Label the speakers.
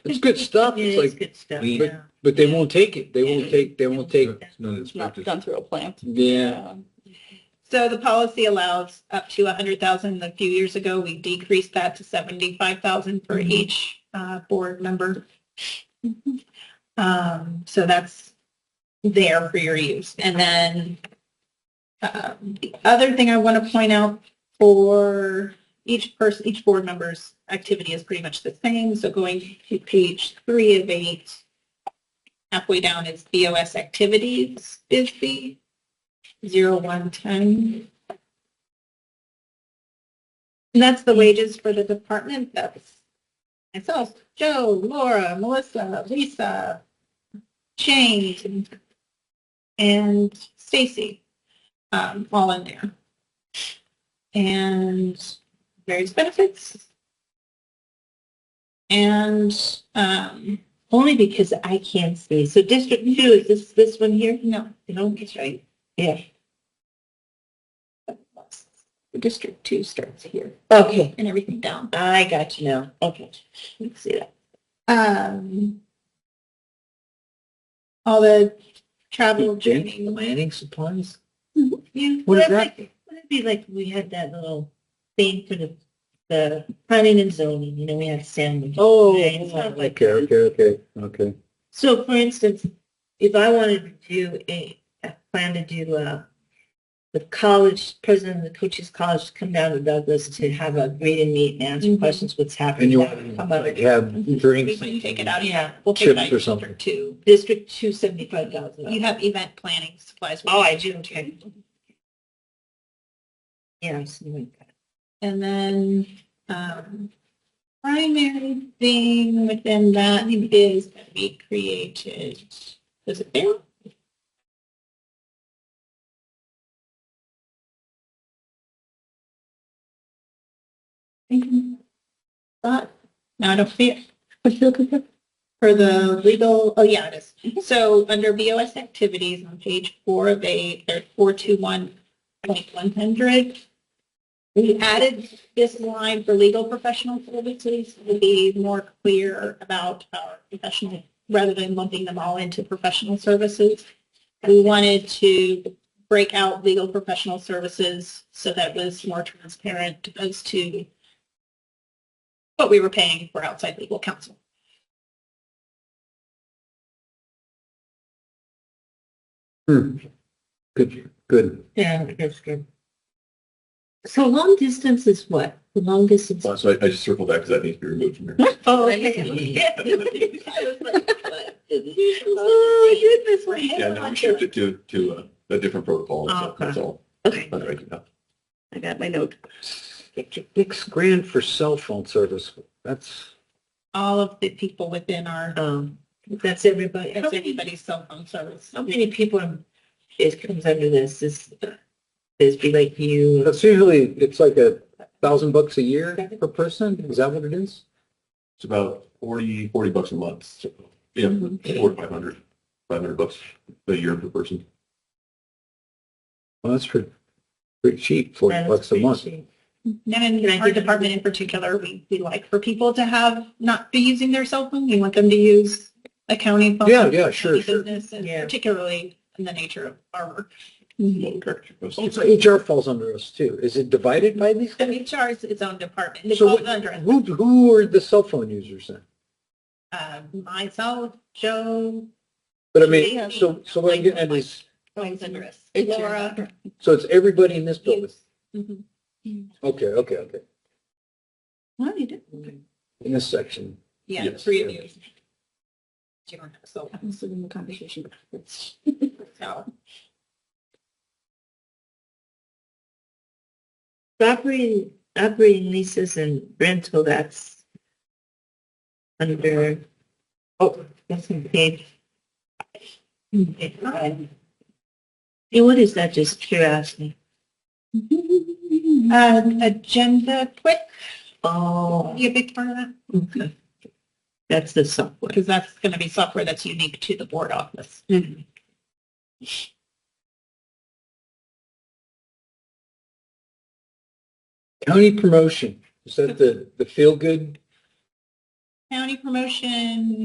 Speaker 1: It's good stuff. It's
Speaker 2: It is
Speaker 1: like,
Speaker 2: good stuff,
Speaker 3: we-
Speaker 2: yeah.
Speaker 1: but they won't take it. They won't
Speaker 2: Yeah.
Speaker 1: take, they won't take,
Speaker 3: It's not
Speaker 2: It's
Speaker 3: inspected.
Speaker 4: through a plant.
Speaker 1: yeah.
Speaker 2: So the policy allows up to a hundred thousand. A few years ago, we decreased that to seventy-five thousand for each uh, board member. Um, so that's there for your use. And then um, the other thing I want to point out for each person, each board member's activity is pretty much the same. So going to page three of eight, halfway down is BOS activities is the zero one ten. And that's the wages for the department. That's myself, Joe, Laura, Melissa, Lisa, Jane, and Stacy, um, all in there. And various benefits. And, um,
Speaker 4: Only because I can't see. So District Two, is this, this one here?
Speaker 2: no,
Speaker 4: No, that's right. Yeah.
Speaker 2: District Two starts here
Speaker 4: Okay,
Speaker 2: and everything down.
Speaker 4: I got you now. Okay. Let's see that.
Speaker 2: Um, all the travel training.
Speaker 1: Planning supplies?
Speaker 4: Yeah.
Speaker 1: What is
Speaker 4: that's
Speaker 1: that?
Speaker 4: like- Wouldn't it be like we had that little thing for the, the planning and zoning, you know, we had sandwich.
Speaker 1: Oh,
Speaker 4: Right, it's not like-
Speaker 1: okay, okay, okay, okay.
Speaker 4: So for instance, if I wanted to do a, I plan to do a, the college, president of the coaches college to come down to Douglas to have a greet and meet and answer
Speaker 2: Mhm.
Speaker 4: questions, what's happening.
Speaker 1: And you
Speaker 4: that would
Speaker 1: want to
Speaker 4: come out of
Speaker 1: like have drinks?
Speaker 2: We can take it out.
Speaker 4: Yeah,
Speaker 2: We'll take it
Speaker 1: Chips
Speaker 2: out
Speaker 1: or
Speaker 2: of
Speaker 1: something.
Speaker 2: District Two.
Speaker 4: District two seventy-five
Speaker 2: You
Speaker 4: thousand.
Speaker 2: have event planning supplies.
Speaker 4: Oh, I do, okay. Yeah, I'm seeing that.
Speaker 2: And then, um, primary thing within that is that we created, is it there? But, Mm-hmm. no, I don't see it. What you looking for? For the legal, oh yeah, it is. So under BOS activities on page four of eight, there's four two one point one hundred. We added this line for legal professional services to be more clear about our professional, rather than lumping them all into professional services. We wanted to break out legal professional services so that was more transparent as to what we were paying for outside legal counsel.
Speaker 1: Hmm. Good, good.
Speaker 4: Yeah, that's good. So long distance is what? The long distance?
Speaker 3: So I, I just circled that because that needs to be removed from here.
Speaker 4: Oh,
Speaker 2: Oh, goodness, we're
Speaker 3: Yeah,
Speaker 2: hanging
Speaker 3: no,
Speaker 2: on
Speaker 3: we
Speaker 2: to it.
Speaker 3: shifted to, to uh, a different protocol, and stuff,
Speaker 4: Okay.
Speaker 3: that's all.
Speaker 4: Okay,
Speaker 3: Not right now.
Speaker 4: I got my note.
Speaker 1: Six grand for cell phone service. That's,
Speaker 2: All of the people within our,
Speaker 4: Um, that's everybody.
Speaker 2: that's everybody's cell phone service.
Speaker 4: How many people are- it comes under this? This, this be like you?
Speaker 1: that's usually, it's like a thousand bucks a year per person. Is that what it is?
Speaker 3: It's about 40, 40 bucks a month. So, Yeah, four to 500, 500 bucks a year per person.
Speaker 1: Well, that's pretty, pretty cheap, forty bucks a month.
Speaker 2: And
Speaker 4: Can I
Speaker 2: in our
Speaker 4: give you-
Speaker 2: department in particular, we, we like for people to have, not be using their cell phone. We want them to use a county phone.
Speaker 1: Yeah, yeah, sure,
Speaker 2: any
Speaker 1: sure.
Speaker 2: Business, and
Speaker 4: Yeah.
Speaker 2: particularly in the nature of our work.
Speaker 4: Mm-hmm.
Speaker 3: Correct.
Speaker 1: Oh, So HR falls under us too. Is it divided by these?
Speaker 2: So HR is its own department. It
Speaker 1: So
Speaker 2: falls
Speaker 1: what-
Speaker 2: under it.
Speaker 1: Who, who are the cell phone users then?
Speaker 2: Uh, myself, Joe,
Speaker 1: But I mean, so, so what I'm getting at is,
Speaker 2: falls under us.
Speaker 4: It's your-
Speaker 2: Laura.
Speaker 1: so it's everybody in this building?
Speaker 2: Mhm.
Speaker 1: Okay, okay, okay.
Speaker 4: What you do?
Speaker 1: In this section.
Speaker 2: Yeah, the
Speaker 3: Yes.
Speaker 2: three of you. You don't have cell
Speaker 4: I'm still in the conversation.
Speaker 2: phones, so.
Speaker 4: Operating, operating leases and rental, that's under, oh, that's in page.
Speaker 2: Mm-hmm.
Speaker 4: Yeah, what is that, just curiosity?
Speaker 2: Uh, agenda quick,
Speaker 4: Oh,
Speaker 2: be a big part of that,
Speaker 4: okay. That's the software.
Speaker 2: because that's going to be software that's unique to the board office.
Speaker 4: Mm-hmm.
Speaker 1: County promotion, is that the, the feel-good
Speaker 2: county promotion